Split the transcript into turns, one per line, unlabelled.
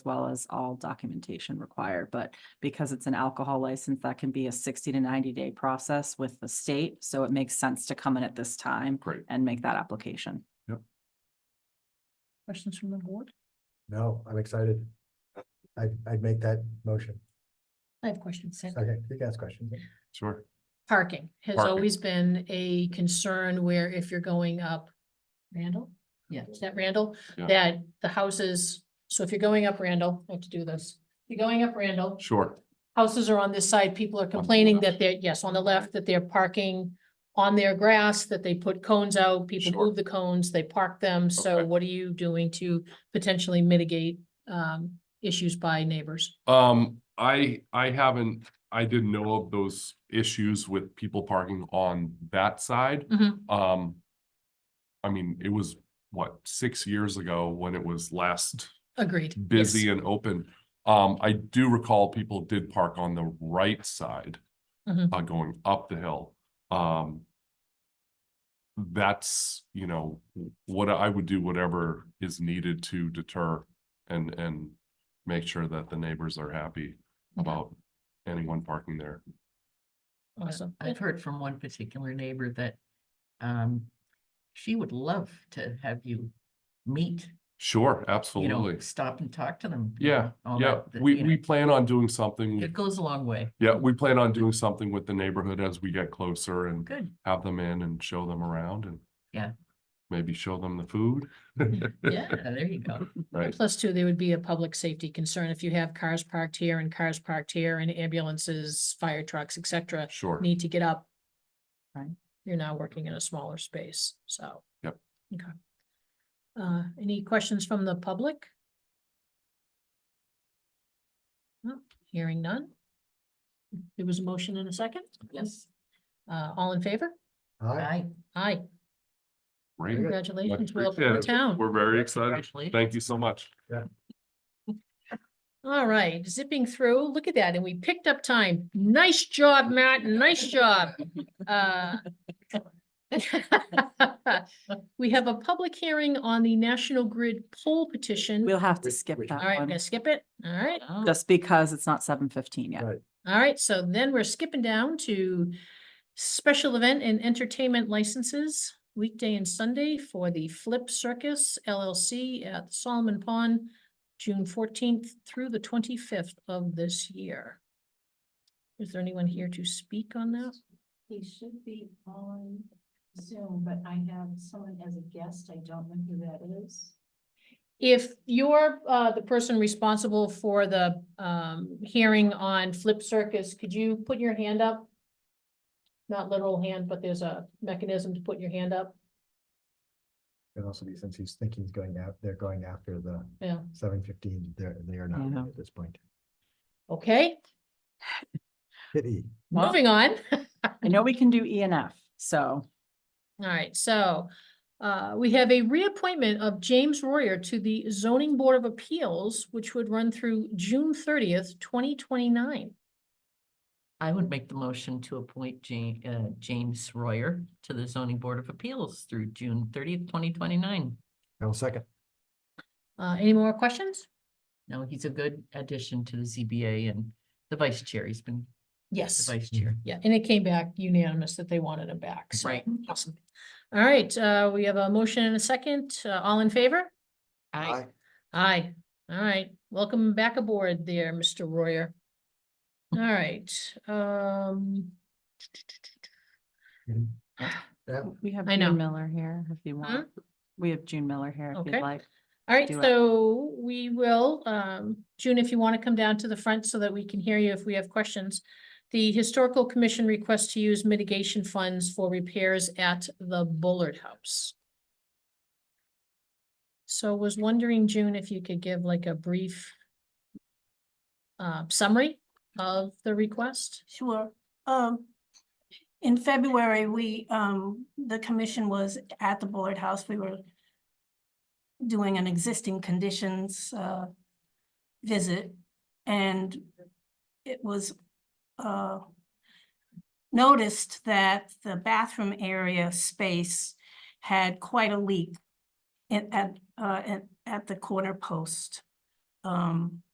well as all documentation required, but because it's an alcohol license, that can be a sixty to ninety day process with the state, so it makes sense to come in at this time
Great.
and make that application.
Questions from the board?
No, I'm excited. I, I'd make that motion.
I have questions. Sid.
Okay, you can ask questions.
Sure.
Parking has
Parking.
always been a concern where if you're going up Randall?
Yeah.
Is that Randall?
Yeah.
That the houses, so if you're going up Randall, I have to do this. If You're going up Randall,
Sure.
houses are on this side, people are complaining
left.
that they're, yes, on the left, that they're parking on their grass, that they put cones out, people
Sure.
move the cones, they park them, so
Okay.
what are you doing to potentially mitigate um issues by neighbors?
Um, I, I haven't, I didn't know of those issues with people parking on that side.
Mhm.
Um, I mean, it was, what, six years ago when it was last
Agreed. Yes.
busy and open. Um, I do recall people did park on the right side,
Mhm.
Mm-hmm.
uh, going up the hill. Um, that's, you know, w- what I would do, whatever is needed to deter and, and make sure that the neighbors are happy
Okay.
about anyone parking there.
Awesome.
I've heard from one particular neighbor that um she would love to have you meet,
Sure,
you know,
absolutely.
stop and talk to them. you
Yeah,
know, all
yeah,
that, that,
we,
you know,
we plan on doing something.
It goes a long way.
Yeah, we plan on doing something with the neighborhood as we get closer and
Good.
have them in and show them around and.
Yeah.
Maybe show them the food.
Yeah, there you go.
Right,
Plus two, there would be a public safety concern if you have cars parked here and cars parked here and ambulances, fire trucks, et cetera,
sure.
need to get up.
Right.
You're now working in a smaller space, so.
Yep.
Okay. Uh, any questions from the public? No, hearing none. There was a motion in a second?
Yes,
Uh, all in favor?
Aye.
I
Aye,
Great. Much
congratulations, Will, for
appreciated.
town.
We're very excited.
congratulations.
Thank you so much.
All right, zipping through, look at that, and we picked up time. Nice job, Matt, nice job. Uh, We have a public hearing on the National Grid poll petition.
We'll
All
have to
Wait,
skip
wait.
that
right, I'm
one,
gonna skip it. All right,
Oh,
just because it's not seven fifteen yet.
Right.
all right, so then we're skipping down to special event and entertainment licenses, weekday and Sunday for the Flip Circus LLC at Solomon Pond, June fourteenth through the twenty-fifth of this year. Is there anyone here to speak on that?
He should be on Zoom, but I have someone as a guest. I don't know who that is.
If you're uh the person responsible for the um hearing on Flip Circus, could you put your hand up? Not literal hand, but there's a mechanism to put your hand up.
And also be, since he's thinking he's going out, they're going after the
Yeah,
seven fifteen, they're, they are not
Yeah.
at this point.
okay,
Pity.
Wow.
moving on.
I know we can do E and F, so
All right, so uh, we have a reappointment of James Royer to the zoning board of appeals, which would run through June thirtieth, twenty twenty-nine.
I would make the motion to appoint Ja- uh, James Royer to the zoning board of appeals through June thirtieth, twenty twenty-nine.
I will second.
Uh, any more questions?
No, he's a good addition to the ZBA and the vice chair. He's been the
Yes.
vice chair.
Yeah, and it came back unanimous that they wanted him back, so.
Right.
Awesome. All right, uh, we have a motion and a second. Uh, all in favor?
I,
Aye. All right, welcome back aboard there, Mr. Royer. All right, um,
Yeah,
we have
I know.
June Miller here if you want. We have June Miller here if
Okay.
you'd like.
all right,
Do it.
so we will, um, June, if you want to come down to the front so that we can hear you if we have questions. The Historical Commission requests to use mitigation funds for repairs at the Bullard House. So was wondering, June, if you could give like a brief uh, summary of the request?
Sure. Um, in February, we, um, the commission was at the Bullard House. We were doing an existing conditions, uh, visit and it was, uh, noticed that the bathroom area space had quite a leak in, at, uh, at, at the corner post. um,